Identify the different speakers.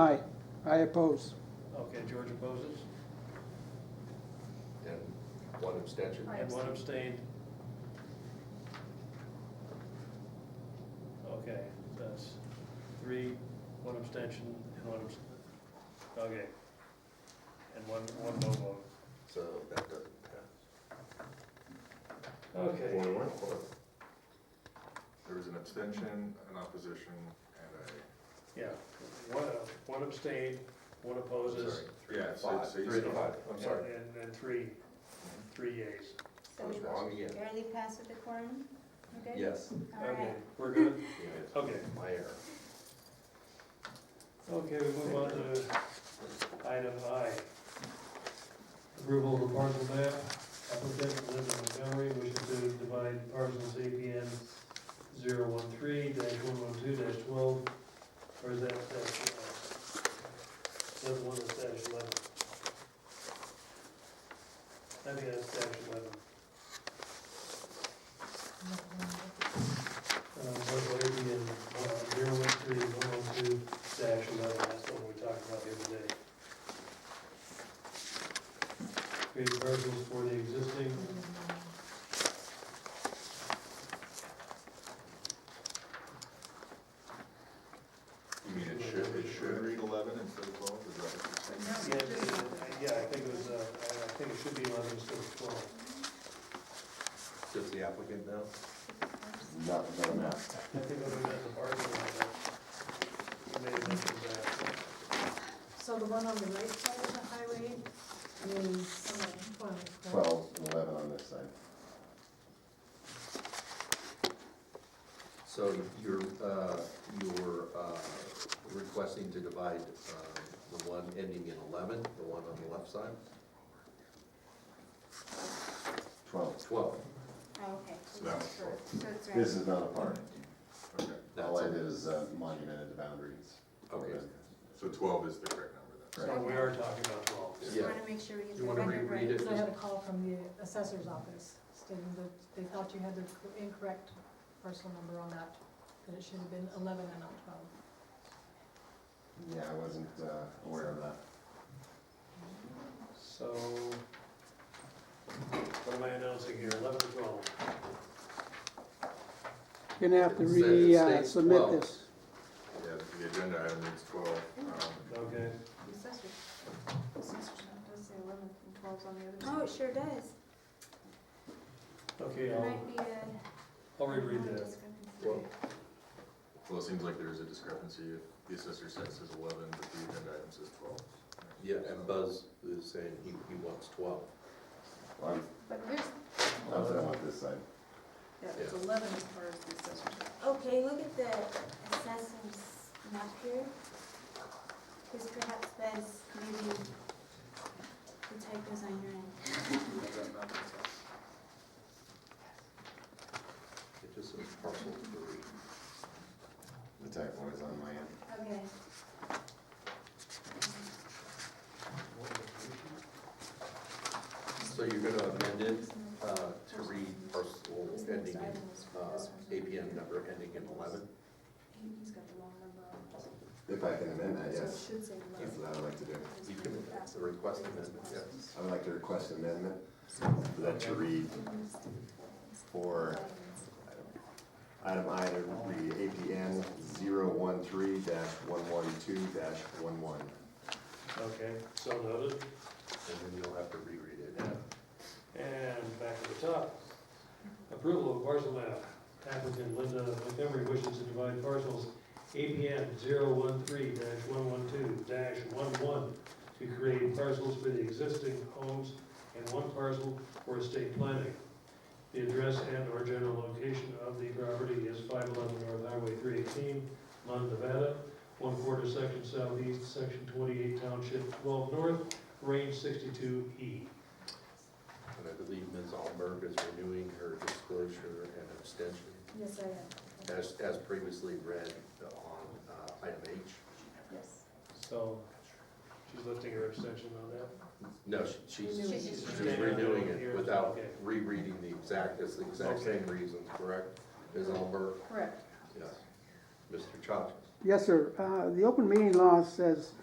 Speaker 1: Aye. I oppose.
Speaker 2: Okay, George opposes,
Speaker 3: and one abstention.
Speaker 4: I
Speaker 2: and one abstained. Okay, that's three, one abstention, and one abst, okay. And one, one no vote.
Speaker 3: So that doesn't pass.
Speaker 2: Okay,
Speaker 3: One, one, one.
Speaker 5: There was an abstention, an opposition, and a,
Speaker 2: yeah, one, one abstained, one opposes,
Speaker 3: Sorry, Three
Speaker 5: Yeah,
Speaker 3: to
Speaker 5: so-
Speaker 3: five.
Speaker 5: so you
Speaker 3: Three to
Speaker 5: still-
Speaker 3: five, I'm
Speaker 2: and,
Speaker 3: sorry.
Speaker 2: and three, three yeas.
Speaker 3: I
Speaker 4: So
Speaker 3: was
Speaker 4: we
Speaker 3: wrong again.
Speaker 4: barely passed with the quorum? We're good?
Speaker 3: Yes,
Speaker 4: All
Speaker 2: Okay,
Speaker 4: right.
Speaker 2: we're good?
Speaker 3: it
Speaker 2: Okay.
Speaker 3: is. my error.
Speaker 2: Okay, we move on to item I. Approval of the parcel map, applicant Linda Montgomery wishes to divide parcels APN 013 one one two twelve, or is that, that's, uh, that's one that's dash eleven? I think that's dash eleven. Um, parcel APN oh zero one three one one two dash eleven, that's the one we talked about the other day. Create parcels for the existing.
Speaker 5: you mean it should, it should read eleven instead of twelve, is that what you're saying?
Speaker 2: Yeah, yeah, I think it was, uh, I I think it should be eleven instead of twelve.
Speaker 3: Does the applicant know?
Speaker 6: Not, not now.
Speaker 2: I think other than the parking lot, that may have mentioned that.
Speaker 7: So the one on the right side of the highway is twelve, right?
Speaker 6: Twelve and eleven on this side.
Speaker 3: So you're, uh, you're uh, requesting to divide um, the one ending in 11, the one on the left side?
Speaker 6: Twelve.
Speaker 3: 12.
Speaker 4: Oh, okay.
Speaker 5: So that was four.
Speaker 4: So it's right.
Speaker 6: This is not a park.
Speaker 5: Okay,
Speaker 6: All I
Speaker 3: That's-
Speaker 6: did is uh, monumented the boundaries.
Speaker 3: Okay.
Speaker 5: so twelve is the correct number then.
Speaker 2: So we are talking about twelve.
Speaker 4: Just
Speaker 3: Yeah.
Speaker 4: want to make sure we get
Speaker 3: You
Speaker 4: the
Speaker 3: wanna
Speaker 4: record right.
Speaker 3: reread it?
Speaker 7: So I had a call from the assessor's office stating that they thought you had the incorrect parcel number on that, that it should have been eleven and not twelve.
Speaker 6: Yeah, I wasn't uh, aware of that.
Speaker 2: So, what am I announcing here, eleven or twelve?
Speaker 1: You're gonna have to
Speaker 3: It says- it
Speaker 1: re, uh,
Speaker 3: states
Speaker 1: submit
Speaker 3: twelve.
Speaker 1: this.
Speaker 5: Yeah, the agenda item reads twelve, um,
Speaker 2: Okay,
Speaker 4: Assessor's- assessor's note does say 11 and 12's on the other side. Oh, it sure does.
Speaker 2: okay,
Speaker 4: There
Speaker 2: I'll,
Speaker 4: might be a.
Speaker 2: I'll reread that.
Speaker 3: Well,
Speaker 5: well, it seems like there is a discrepancy, if the assessor says it's eleven, but the agenda item says twelve.
Speaker 3: Yeah, and Buzz is saying he, he wants 12.
Speaker 6: Well, I'm,
Speaker 4: But here's,
Speaker 6: not that I'm on this side.
Speaker 8: Yeah,
Speaker 3: it's
Speaker 8: eleven as far as the assessor's.
Speaker 4: okay, look at the assessor's map here. Because perhaps that's maybe the typos on your end.
Speaker 3: It just says parcel three.
Speaker 6: The typo is on my end.
Speaker 4: Okay.
Speaker 3: So you're going to amend it uh, to read parcel
Speaker 8: This next
Speaker 3: ending, in,
Speaker 8: item is
Speaker 3: uh,
Speaker 8: for this one.
Speaker 3: APN number ending in 11?
Speaker 8: He- He's got the wrong number on it.
Speaker 6: If I can amend that,
Speaker 8: So it
Speaker 6: yes.
Speaker 8: should say
Speaker 6: That's
Speaker 8: eleven.
Speaker 6: what I would like to do.
Speaker 3: You can request amendment, yes.
Speaker 6: I would like to request amendment
Speaker 8: So-
Speaker 6: for that to read for item I to read APN 013-112-11.
Speaker 2: Okay, so noted.
Speaker 3: And then you'll have to reread it.
Speaker 2: And back to the top. Approval of parcel map. Applicant Linda Montgomery wishes to divide parcels APN 013-112-11 to create parcels for the existing homes and one parcel for estate planning. The address and/or general location of the property is 511 North Highway 318, Lund, Nevada, one quarter section southeast, section 28, township 12 north, range E. 62E.
Speaker 3: And I believe Ms. Alberg is renewing her disclosure and abstention
Speaker 7: Yes, I am.
Speaker 3: as, as previously read on uh, item H.
Speaker 8: Yes.
Speaker 2: So, she's lifting her abstention on that?
Speaker 3: No, she- she's
Speaker 7: Renewing.
Speaker 3: she's just renewing it without rereading the exact, it's the exact
Speaker 2: Okay.
Speaker 3: same reasons, correct? Ms. Alberg?
Speaker 8: Correct.
Speaker 3: Yes. Mr. Chachas?
Speaker 1: Yes, sir. Uh, The open meeting law says